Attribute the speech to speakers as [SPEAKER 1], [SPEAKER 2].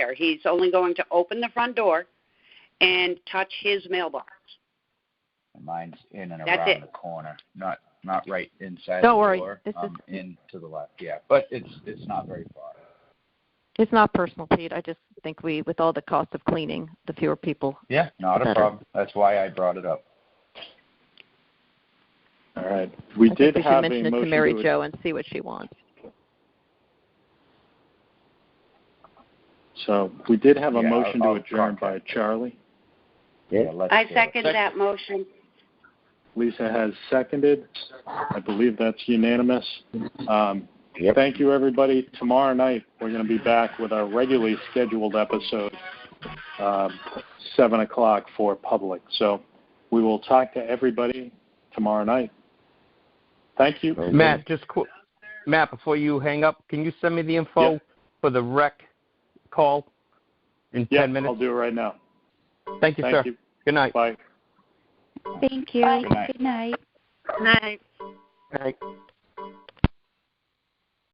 [SPEAKER 1] there. He's only going to open the front door and touch his mailbox.
[SPEAKER 2] Mine's in and
[SPEAKER 1] That's
[SPEAKER 2] around
[SPEAKER 1] it.
[SPEAKER 2] the corner, not not right inside
[SPEAKER 3] Don't
[SPEAKER 2] the
[SPEAKER 3] worry,
[SPEAKER 2] door.
[SPEAKER 3] this is-
[SPEAKER 2] um, in to the left. Yeah, but it's it's not very far.
[SPEAKER 3] It's not personal, Pete. I just think we, with all the cost of cleaning, the fewer people.
[SPEAKER 2] Yeah, not a
[SPEAKER 3] Better.
[SPEAKER 2] problem. That's why I brought it up.
[SPEAKER 4] All right. We
[SPEAKER 3] I
[SPEAKER 4] did
[SPEAKER 3] think we should
[SPEAKER 4] have
[SPEAKER 3] mention
[SPEAKER 4] a
[SPEAKER 3] it
[SPEAKER 4] motion
[SPEAKER 3] to Mary
[SPEAKER 4] ad-
[SPEAKER 3] Jo and see what she wants.
[SPEAKER 4] So we did have a
[SPEAKER 2] Yeah,
[SPEAKER 4] motion
[SPEAKER 2] I'll- I'll
[SPEAKER 4] to adjourn by
[SPEAKER 2] contact
[SPEAKER 4] Charlie.
[SPEAKER 2] Yeah, let's
[SPEAKER 1] I
[SPEAKER 2] do it.
[SPEAKER 1] second that motion.
[SPEAKER 4] Lisa has seconded. I believe that's unanimous. Um, Thank you, everybody. Tomorrow night, we're going to be back with our regularly scheduled episode, um, 7 o'clock for public. So we will talk to everybody tomorrow night. Thank you.
[SPEAKER 5] Matt, just qu- Matt, before you hang up, can you send me the info
[SPEAKER 4] Yeah.
[SPEAKER 5] for the rec call in
[SPEAKER 4] Yeah,
[SPEAKER 5] 10 minutes?
[SPEAKER 4] I'll do it right now.
[SPEAKER 5] Thank you, sir.
[SPEAKER 4] Thank you.
[SPEAKER 5] Good night.
[SPEAKER 4] Bye.
[SPEAKER 6] Thank you.
[SPEAKER 2] Good night.
[SPEAKER 6] Good night.
[SPEAKER 1] Night.
[SPEAKER 5] Good night.